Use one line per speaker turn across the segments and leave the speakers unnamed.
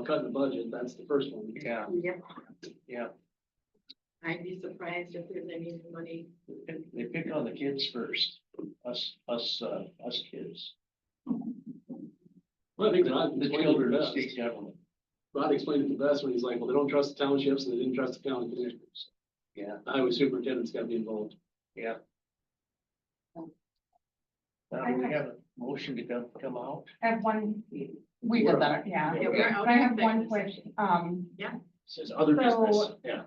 cutting the budget, that's the first one.
Yeah,
Yep,
yeah.
I'd be surprised if there's any money.
They pick- They pick on the kids first, us, us, uh, us kids.
Well, I think Rod
The
explained it
children of
the
state
best.
government,
Rod explained it the best when he's like, well, they don't trust the townships and they didn't trust the county commissioners.
yeah,
The Highway superintendent's gotta be involved.
yeah. Now, do we have a motion to come, come out.
I have one, we
We're-
did that, yeah.
Yeah, we're out
But I
of
have one
executive
question, um,
Says other business,
So-
yeah.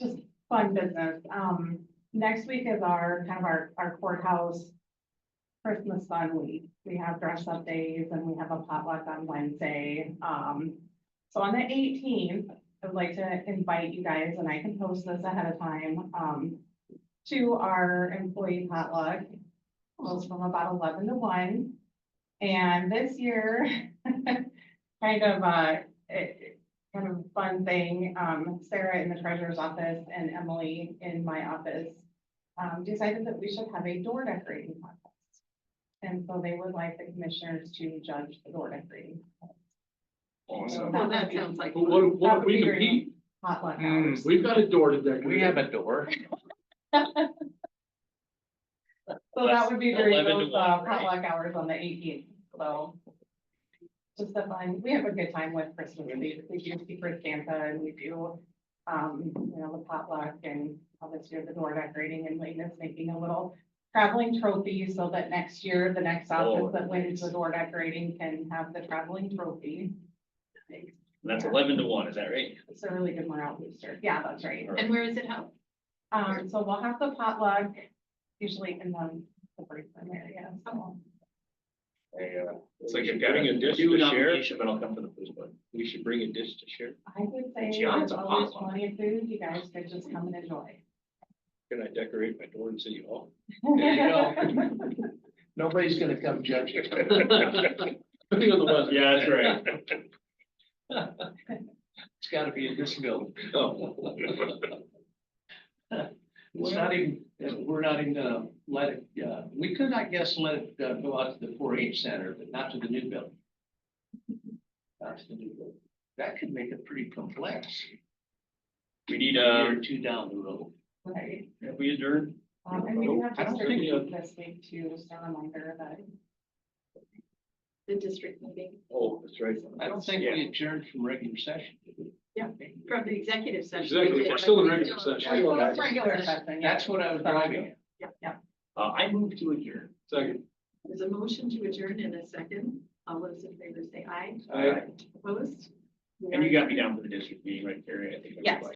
just fun business. Um, next week is our, kind of our, our courthouse Christmas fun week. We have dress up days and we have a potluck on Wednesday. Um, so on the eighteenth, I would like to invite you guys, and I can post this ahead of time, um, to our employee potluck. Goes from about eleven to one. And this year, kind of, uh, it, kind of fun thing, um, Sarah in the treasurer's office and Emily in my office, um, decided that we should have a door decorating contest. And so they would like the commissioners to judge the door decorating
Awesome.
Well, that sounds like.
But what, if- what if we
That would be great.
compete?
potluck
Mm.
hours.
We've got a door to decorate.
We have a door.
So that would be during
11 to
those uh,
1, right?
potluck hours on the eighteenth, so. Just a fun, we have a good time with Christmas, we, we do secret Santa and we do, um, you know, the potluck and all this year, the door decorating and Lane is making a little traveling trophy so that next year, the next
Oh,
office that wins the
nice.
door decorating can have the traveling trophy.
And That's eleven to one, is that right?
It's a really good morale booster, yeah, that's right.
And where is it held?
Um, so we'll have the potluck usually in the, the break room area, so.
It's like you're getting a dish to share. But I'll come for the first one. We should bring a dish to share.
I would say
Gee,
there's
that's a
always
potluck.
plenty of food, you guys could just come and enjoy.
Can I decorate my door in City Hall?
There you go. Nobody's gonna come judge you.
Depending on the weather.
Yeah, that's right.
It's gotta be in this building.
Oh.
It's not even, we're not even gonna let it, uh, we could, I guess, let it uh, go out to the four H center, but not to the new building. Not to the new building. That could make it pretty complex.
We need
a
uh
Year or two down the road.
Right.
have we adjourned?
Um, and we do have
I don't
district
think you-
meeting this week too, just a reminder that.
The district meeting
Oh, that's right.
I don't think we adjourned from regular session. did we?
Yeah. from the executive session.
Exactly, we're still in regular session.
Yeah.
Well, it's regular session.
That's what I was driving at.
Uh, I moved to adjourn.
Second.
There's a motion to adjourn in a second. All those in favor say aye.
Aye.
Opposed?
And you got me down for the district meeting right there. I think.
Yes.